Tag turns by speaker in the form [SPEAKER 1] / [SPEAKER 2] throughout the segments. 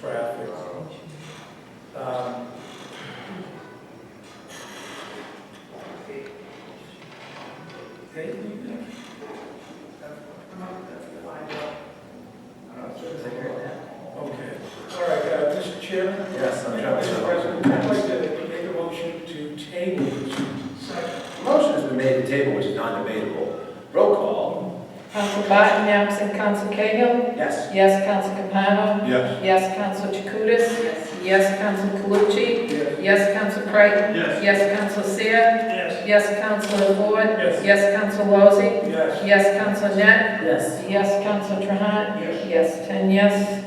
[SPEAKER 1] traffic. Um, Hey, you there? Okay, all right, uh, Mr. Chairman?
[SPEAKER 2] Yes, I'm trying
[SPEAKER 1] Mr.
[SPEAKER 2] to.
[SPEAKER 1] President, I'd like to make a motion to table this second.
[SPEAKER 2] Motion has been made to table, which is non-debatable. Roll call.
[SPEAKER 3] Council Barton, absent Council Cahill.
[SPEAKER 2] Yes.
[SPEAKER 3] Yes, Council Capano.
[SPEAKER 4] Yes.
[SPEAKER 3] Yes, Council Jacutis. Yes, Council Calucci.
[SPEAKER 1] Yes.
[SPEAKER 3] Yes, Council Creighton.
[SPEAKER 4] Yes.
[SPEAKER 3] Yes, Council Seer.
[SPEAKER 1] Yes.
[SPEAKER 3] Yes, Council Ford.
[SPEAKER 1] Yes.
[SPEAKER 3] Yes, Council Lozey.
[SPEAKER 1] Yes.
[SPEAKER 3] Yes, Council Net.
[SPEAKER 2] Yes.
[SPEAKER 3] Yes, Council Trahan.
[SPEAKER 1] Yes.
[SPEAKER 3] Yes, ten yes.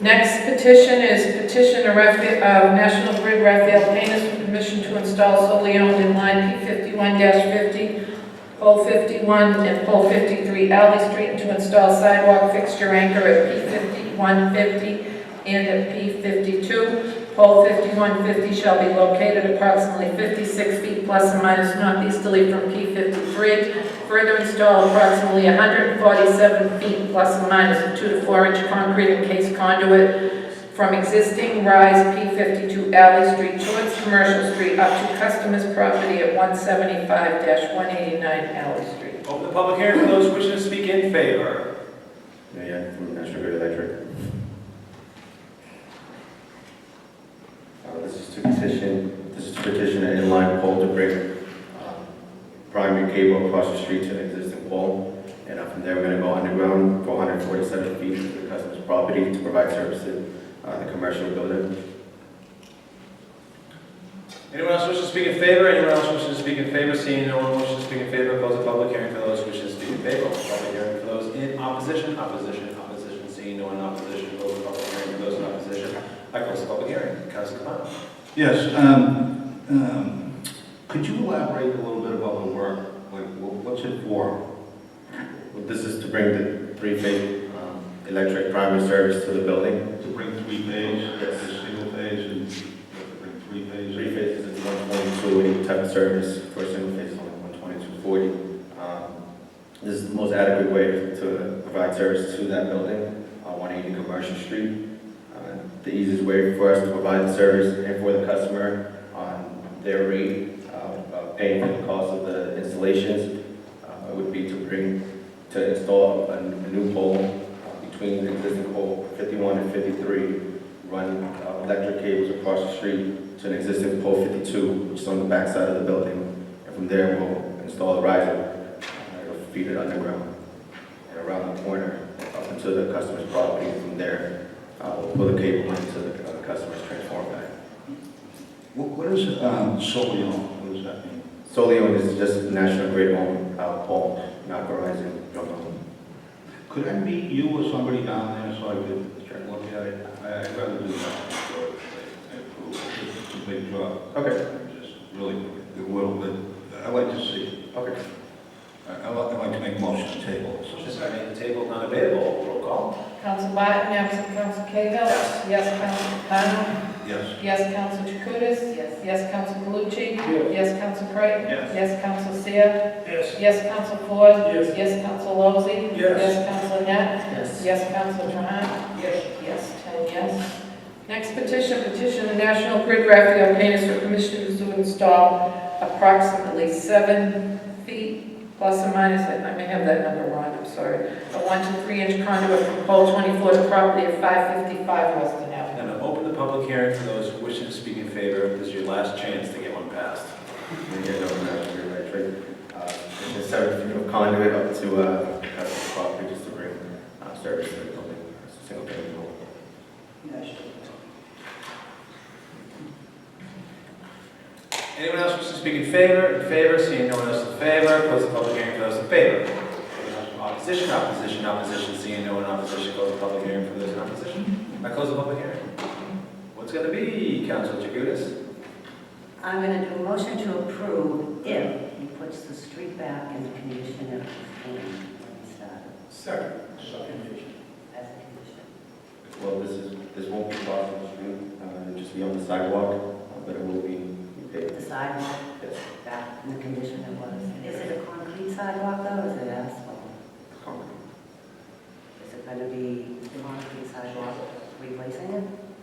[SPEAKER 3] Next petition is petition of Rapha- uh, National Grid Raphael Paintis for permission to install solely owned in line P fifty-one fifty, pole fifty-one and pole fifty-three Alley Street to install sidewalk fixture anchor at P fifty-one fifty and at P fifty-two. Pole fifty-one fifty shall be located approximately fifty-six feet plus or minus northeasterly from P fifty-three Further install approximately 147 feet plus or minus a 2 to 4 inch concrete encased conduit from existing Rise P52 Alley Street towards Commercial Street up to customer's property at 175-189 Alley Street.
[SPEAKER 2] Open the public hearing for those wishing to speak in favor.
[SPEAKER 4] Mayor from National Grid Electric. Uh, This is to petition, this is to petition an inline pole to bring uh, primary cable across the street to an existing pole. And uh, from there, we're going to go underground 447 feet to the customer's property to provide services on the commercial building.
[SPEAKER 2] Anyone else wishing to speak in favor? Anyone else wishing to speak in favor? Seeing no one wishing to speak in favor, close the public hearing for those wishing to speak in favor. Open the Public hearing for those in opposition, opposition, opposition. Seeing no one in opposition, close the public hearing for those in opposition. I close the public hearing. Council Capano.
[SPEAKER 5] Yes, um, um, could you elaborate a little bit about the work? Like, wh- what's it for?
[SPEAKER 4] This is to bring the three-phase um, electric primary service to the building.
[SPEAKER 5] To bring three phase, uh, single phase, and to bring three phase?
[SPEAKER 4] Three phases is 122 type of service, for a single phase is only 12240. Um, This is the most adequate way to provide service to that building on 180 Commercial Street. Uh, The easiest way for us to provide the service and for the customer on their rate, uh, of paying for the cost of the installations, uh, would be to bring, to install a n- a new pole uh, between the existing pole 51 and 53, run uh, electric cables across the street to an existing pole 52, which is on the back side of the building. And from there, we'll install a riser. uh, It'll feed it underground and around the corner up into the customer's property. And From there, uh, we'll pull the cable into the uh, customer's transformer bank.
[SPEAKER 5] What, what is, um, solely on, what does that mean?
[SPEAKER 4] Solion is just National Grid owned uh, pole, not Verizon. don't know.
[SPEAKER 5] Could I meet you or somebody down there so I could look at it? I- I'd rather do that before I- I approve. It's a big job,
[SPEAKER 4] Okay,
[SPEAKER 5] just really, a little bit, I like to see,
[SPEAKER 4] okay.
[SPEAKER 5] I, I like I like to make motion to table. so-
[SPEAKER 2] Motion's been made to table, not available. Roll call.
[SPEAKER 3] Council Barton, absent Council Cahill.
[SPEAKER 2] Yes.
[SPEAKER 3] Yes, Council Capano.
[SPEAKER 5] Yes.
[SPEAKER 3] Yes, Council Jacutis. Yes. Yes, Council Calucci.
[SPEAKER 1] Yes.
[SPEAKER 3] Yes, Council Creighton.
[SPEAKER 2] Yes.
[SPEAKER 3] Yes, Council Seer.
[SPEAKER 1] Yes.
[SPEAKER 3] Yes, Council Ford.
[SPEAKER 1] Yes.
[SPEAKER 3] Yes, Council Lozey.
[SPEAKER 1] Yes.
[SPEAKER 3] Yes, Council Net.
[SPEAKER 2] Yes.
[SPEAKER 3] Yes, Council Trahan.
[SPEAKER 1] Yes.
[SPEAKER 3] Yes, ten yes. Next petition, petition the National Grid Raphael Paintis for permission to install approximately seven feet plus or minus, I may have that number wrong, I'm sorry, a one to three inch conduit from pole twenty-four to property at five fifty-five Weston Avenue.
[SPEAKER 2] And I open the public hearing for those wishing to speak in favor. This is your last chance to get one passed.
[SPEAKER 4] And Again, over National Grid Electric. Uh, It's just seven feet of conduit up to uh, the customer's property just to bring uh, service to the building, single family home.
[SPEAKER 2] Anyone else wish to speak in favor? In favor, seeing no one else in favor, close the public hearing for those in favor. Opposition, opposition, opposition, seeing no one in opposition, close the public hearing for those in opposition. I close the public hearing. What's gonna be, Council Jacutis?
[SPEAKER 6] I'm going to do a motion to approve if he puts the street back in the condition it was in when he started,
[SPEAKER 1] Second. Second.
[SPEAKER 6] uh, as a condition.
[SPEAKER 4] Well, this is, this won't be crossing the street, uh, it'll just be on the sidewalk, uh, but it will be paved.
[SPEAKER 6] The sidewalk
[SPEAKER 4] Yes,
[SPEAKER 6] back in the condition it was. Is it a concrete sidewalk though, or is it asphalt?
[SPEAKER 4] concrete.
[SPEAKER 6] Is it going to be concrete sidewalk? replacing it?